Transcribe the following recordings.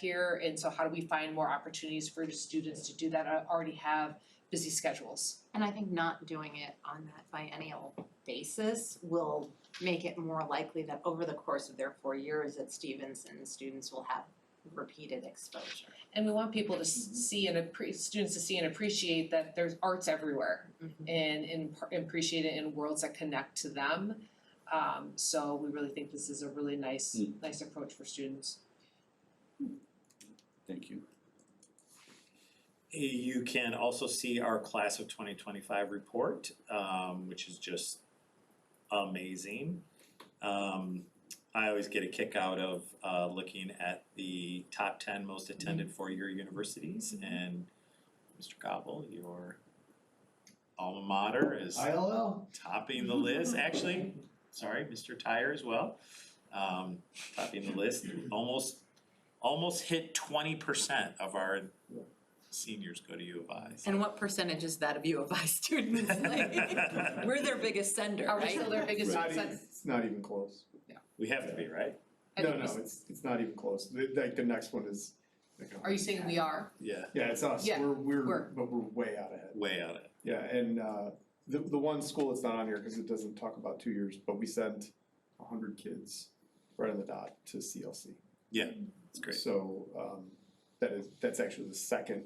here, and so how do we find more opportunities for students to do that, I already have busy schedules. And I think not doing it on that biennial basis will make it more likely that over the course of their four years at Stevenson, students will have repeated exposure. And we want people to s- see and appre- students to see and appreciate that there's arts everywhere Mm-hmm. and and par- and appreciate it in worlds that connect to them. Um, so we really think this is a really nice, Mm. nice approach for students. Thank you. You can also see our class of twenty twenty-five report, um, which is just amazing. Um, I always get a kick out of, uh, looking at the top ten most attended four-year universities and Mr. Gobble, your alma mater is ILL. topping the list, actually, sorry, Mr. Tyre as well. Um, topping the list, almost, almost hit twenty percent of our seniors go to U of I. so. And what percentage is that of U of I students? Like, We're their biggest sender, Are we right? still their biggest Right. success? It's not even close. We have to be, right? I No, think we no, s- it's, it's not even close. The- Like, the next one is. like, a Are you saying we are? Yeah. Yeah, it's us. Yeah, We're, we're- we're, but we're way out ahead. Way out of it. Yeah, and uh, the, the one school that's not on here because it doesn't talk about two years, but we sent a hundred kids right on the dot to CLC. It's great. So um, that is, that's actually the second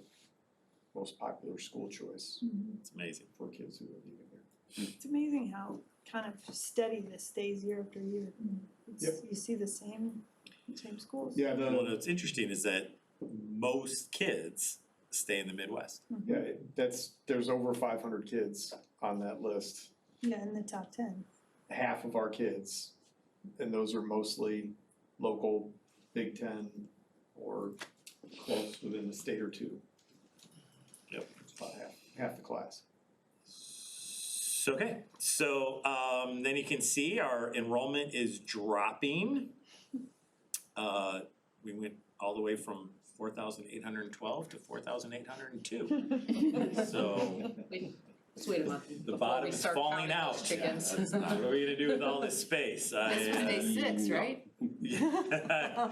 most popular school choice Mm-hmm. It's amazing. for kids who are leaving here. It's amazing how kind of steady this stays year after year. It's- You see the same, same schools. Yeah, Well, the, what's interesting is that most kids stay in the Midwest. yeah, it- that's, there's over five hundred kids on that list. Yeah, in the top ten. half of our kids, and those are mostly local Big Ten or close within the state or two. Yep. It's about half, half the class. So, okay, so um, then you can see our enrollment is dropping. Uh, we went all the way from four thousand eight hundred and twelve to four thousand eight hundred and two. So Wait, let's wait a month the before bottom we is start falling counting out. those Yeah, chickens. that's not- What are we gonna do with all this space? I, This was day uh, six, right? yeah. I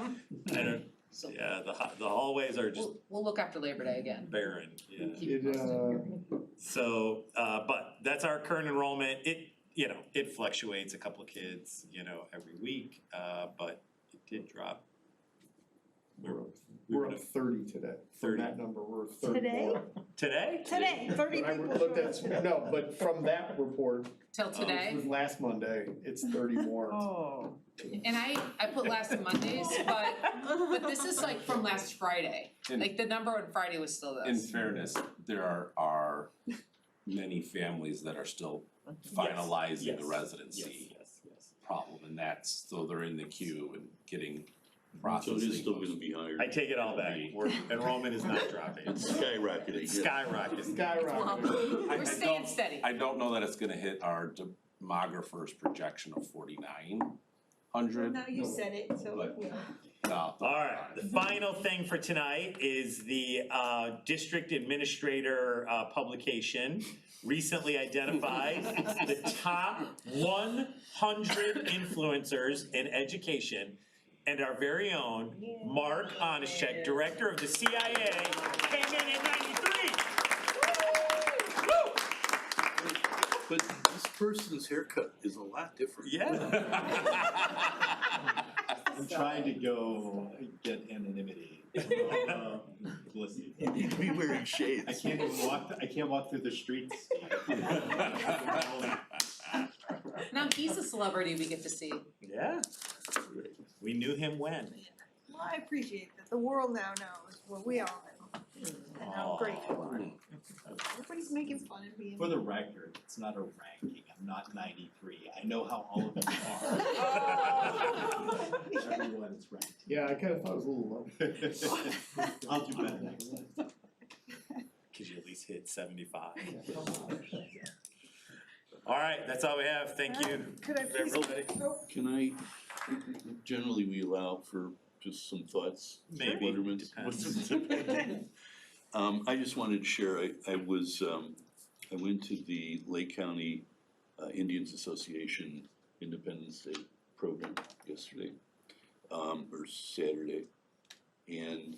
don't- So yeah, the ha- the hallways are just we'll, we'll look after Labor Day again. barren, yeah. Keep it It, posted. uh, So, uh, but that's our current enrollment. It, you know, it fluctuates a couple of kids, you know, every week, uh, but it did drop. we're, We're- we we're were up at thirty today. From 30. that number, we're thirty-one. Today? Today, thirty But I people looked showed at, up today. no, but from that report, which Till Oh, today, was last Monday, it's thirty more. Oh. and I, I put last on Mondays, but, but this is like from last Friday. In- Like the number on Friday was still In this. fairness, there are are many families that are still finalizing yes, the residency yes, yes. problem, and that's, so they're in the queue and getting So processing. it is still gonna be higher. I take it all back. We're- Enrollment is not dropping. It's skyrocketing, yeah. Skyrocketing. Skyrocketing. I- I We're staying don't- steady. I don't know that it's gonna hit our demographer's projection of forty-nine hundred. Now you said it, so. But- All Alright, the final thing for tonight is the uh district administrator uh publication recently identifies the top one hundred influencers in education and our very own Mark Onishek, director of the CIA, came in at ninety-three. Woo! But this person's haircut is a lot different. Yeah. I'm trying to go get anonymity. Um, Listen, He'd be wearing I shades. can't even walk, I can't walk through the streets. Now he's a celebrity we get to see. Yeah. We knew him when. Well, I appreciate that. The world now knows what we all know. And I'm grateful. Everybody's making fun of me. For the record, it's not a ranking, I'm not ninety-three, I know how all of them are, everyone is ranked. Yeah, I kinda thought it was a little low. I'll do better next time. Cause you at least hit seventy-five. Alright, that's all we have, thank you. Could I please? Everybody. Oh, Can I, generally we allow for just some thoughts, Maybe, wonderments? depends. Um, I just wanted to share, I, I was, um, I went to the Lake County uh, Indians Association Independence Day program yesterday, um, or Saturday. And